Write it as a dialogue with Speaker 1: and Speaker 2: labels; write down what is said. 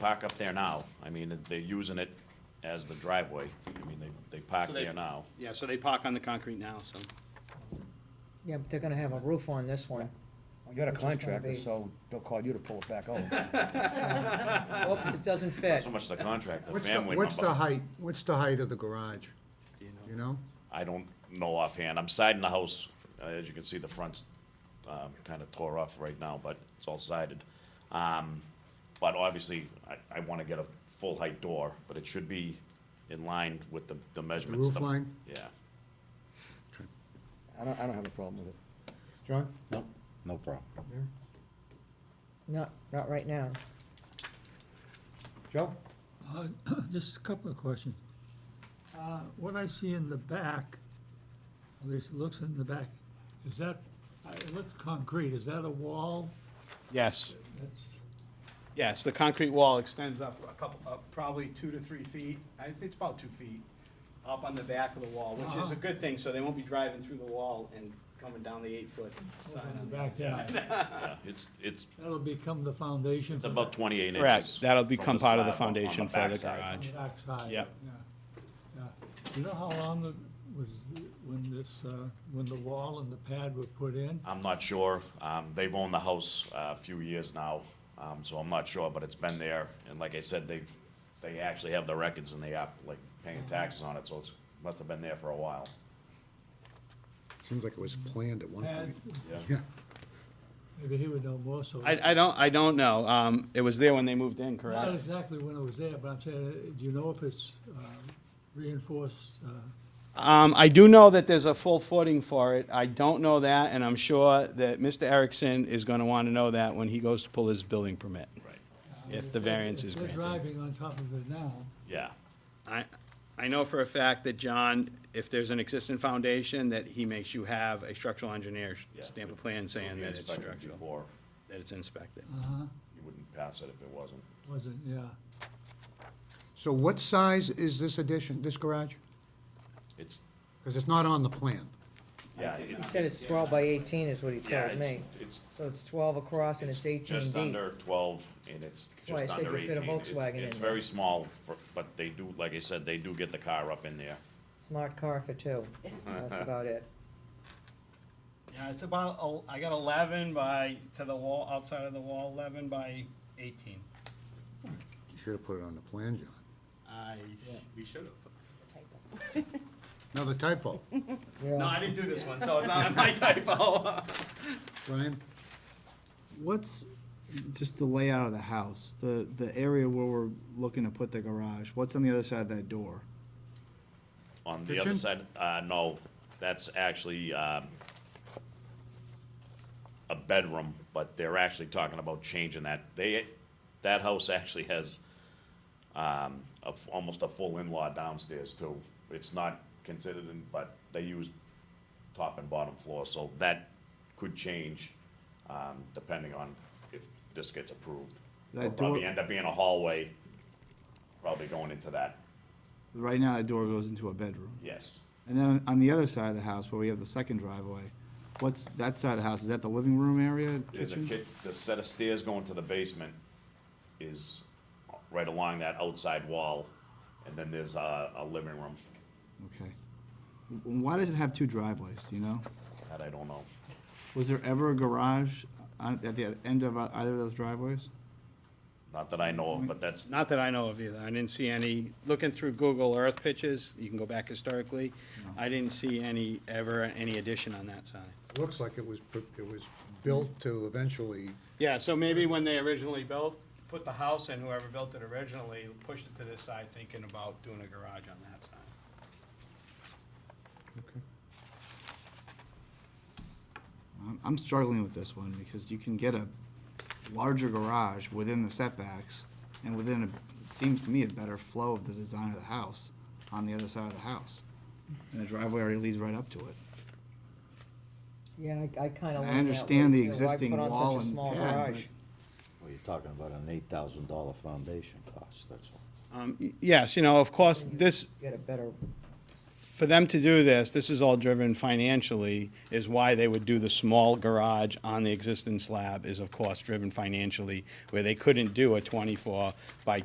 Speaker 1: park up there now. I mean, they're using it as the driveway. I mean, they, they park
Speaker 2: So they-
Speaker 1: there now.
Speaker 2: Yeah, so they park on the concrete now, so.
Speaker 3: Yeah, but they're gonna have a roof on this one.
Speaker 4: Well, You're the
Speaker 3: Which is gonna
Speaker 4: contractor,
Speaker 3: be-
Speaker 4: so they'll call you to pull it back over.
Speaker 3: Oops, it doesn't fit.
Speaker 1: So much the contract, the
Speaker 5: What's the,
Speaker 1: family
Speaker 5: what's the
Speaker 1: member.
Speaker 5: height, what's the height of the garage,
Speaker 2: do you know?
Speaker 5: you know?
Speaker 1: I don't know offhand. I'm siding the house. Uh, As you can see, the front's, um, kinda tore off right now, but it's all sided. Um, but obviously, I, I wanna get a full height door, but it should be in line with the, the measurements.
Speaker 5: roof
Speaker 1: the-
Speaker 5: line?
Speaker 1: Yeah.
Speaker 4: I don't, I don't have a problem with it.
Speaker 5: John?
Speaker 6: No, no problem.
Speaker 3: Not, not right now.
Speaker 4: Joe?
Speaker 7: Uh, Just a couple of questions. Uh, What I see in the back, at least it looks in the back, is that, I- it looks concrete, is that a wall?
Speaker 2: Yes,
Speaker 7: That's,
Speaker 2: yes, the concrete wall extends up a couple, up probably two to three feet, I think it's about two feet, up on the back of the wall, which is a good thing, so they won't be driving through the wall and coming down the eight-foot side.
Speaker 7: on the
Speaker 2: on the-
Speaker 7: back there.
Speaker 1: Yeah, it's, it's,
Speaker 7: That'll become the foundation.
Speaker 1: it's about twenty-eight inches.
Speaker 2: Correct. That'll
Speaker 1: from the
Speaker 2: become part of the
Speaker 1: side, on
Speaker 2: foundation for the
Speaker 1: backside.
Speaker 2: garage.
Speaker 7: the Backside.
Speaker 2: Yep.
Speaker 7: Yeah, yeah. You know how long the, was, the- when this, uh, when the wall and the pad were put in?
Speaker 1: I'm not sure. Um, they've owned the house uh, a few years now, um, so I'm not sure, but it's been there. And like I said, they've, they actually have the records and they are like
Speaker 3: Mm-hmm.
Speaker 1: paying taxes on it, so it's, must have been there for a while.
Speaker 5: Seems like it was planned at one
Speaker 7: Pad,
Speaker 5: point.
Speaker 1: Yeah.
Speaker 5: Yeah,
Speaker 7: maybe he would know more so.
Speaker 2: I, I don't, I don't know, um, it was there when they moved in,
Speaker 7: Not
Speaker 2: correct?
Speaker 7: exactly when it was there, but I'm saying, uh, do you know if it's um, reinforced? uh,
Speaker 2: Um, I do know that there's a full footing for it, I don't know that, and I'm sure that Mr. Erickson is gonna wanna know that when he goes to pull his building permit.
Speaker 1: Right.
Speaker 2: If the variance is
Speaker 7: If they're
Speaker 2: granted.
Speaker 7: driving on top of it now,
Speaker 1: Yeah,
Speaker 2: I, I know for a fact that John, if there's an existing foundation, that he makes you have a structural engineer
Speaker 1: Yeah.
Speaker 2: stamp a plan saying
Speaker 1: We
Speaker 2: that it's
Speaker 1: inspected
Speaker 2: structural,
Speaker 1: before.
Speaker 2: that it's inspected.
Speaker 1: You wouldn't pass it if it wasn't.
Speaker 7: wasn't, yeah.
Speaker 5: So what size is this addition, this garage?
Speaker 1: It's,
Speaker 5: Because it's not on the plan.
Speaker 1: yeah, it-
Speaker 3: He said it's twelve by eighteen is what he
Speaker 1: yeah,
Speaker 3: told
Speaker 1: it's,
Speaker 3: me.
Speaker 1: it's
Speaker 3: So it's twelve across and it's eighteen
Speaker 1: just
Speaker 3: deep.
Speaker 1: under twelve and it's
Speaker 3: Why, I
Speaker 1: just
Speaker 3: said
Speaker 1: under
Speaker 3: you fit
Speaker 1: eighteen.
Speaker 3: a
Speaker 1: It's-
Speaker 3: Volkswagen in
Speaker 1: It's
Speaker 3: there.
Speaker 1: very small, for- but they do, like I said, they do get the car up in there.
Speaker 3: Smart car for two. That's about it.
Speaker 2: Yeah, it's about, el- I got eleven by, to the wall, outside of the wall, eleven by eighteen.
Speaker 5: You should have put it on the plan, John.
Speaker 2: I, we should
Speaker 5: Another typo.
Speaker 3: Yeah.
Speaker 2: have. No, I didn't do this one, so it's not my typo.
Speaker 5: Brian?
Speaker 8: What's just the layout of the house, the, the area where we're looking to put the garage, what's on the other side of that door?
Speaker 1: On the other
Speaker 5: Kitchen?
Speaker 1: side, uh, no, that's actually, um, a bedroom, but they're actually talking about changing that. They, that house actually has, um, a f almost a full in-law downstairs too. It's not considered in, but they use top and bottom floor, so that could change, um, depending on if this gets approved.
Speaker 8: That
Speaker 1: It'll Probably
Speaker 8: door-
Speaker 1: end up being a hallway, probably going into that,
Speaker 8: Right now, that door goes into a bedroom.
Speaker 1: yes.
Speaker 8: And then on- on the other side of the house, where we have the second driveway, what's that side of the house, is that the living room area,
Speaker 1: There's a
Speaker 8: kitchen?
Speaker 1: kit, the set of stairs going to the basement is right along that outside wall, and then there's a, a living room,
Speaker 8: Okay. W- Why does it have two driveways, do you know?
Speaker 1: that I don't know.
Speaker 8: Was there ever a garage on, at the end of either of those driveways?
Speaker 1: Not that I know of, but that's,
Speaker 2: Not that I know of either. I didn't see any, looking through Google Earth pictures, you can go back historically, I didn't see any, ever, any addition on that side.
Speaker 5: Looks like it was, pr- it was built to eventually,
Speaker 2: Yeah, so maybe when they originally built, put the house in, whoever built it originally, pushed it to this side thinking about doing a garage on that side.
Speaker 8: I'm- I'm struggling with this one because you can get a larger garage within the setbacks and within, a it seems to me, a better flow of the design of the house on the other side of the house. And the driveway already leads right up to it.
Speaker 3: Yeah, I, I kinda
Speaker 8: I
Speaker 3: like that.
Speaker 8: understand
Speaker 3: way, too.
Speaker 8: the
Speaker 3: Why put
Speaker 8: existing
Speaker 3: on such a
Speaker 8: wall and
Speaker 3: small
Speaker 8: pad,
Speaker 3: garage?
Speaker 6: Well, you're talking about an eight thousand dollar foundation cost, that's all.
Speaker 2: Um, y- Yes, you know, of course, this,
Speaker 3: Get a better
Speaker 2: for them to do this, this is all driven financially, is why they would do the small garage on the existing slab is of course driven financially, where they couldn't do a twenty-four by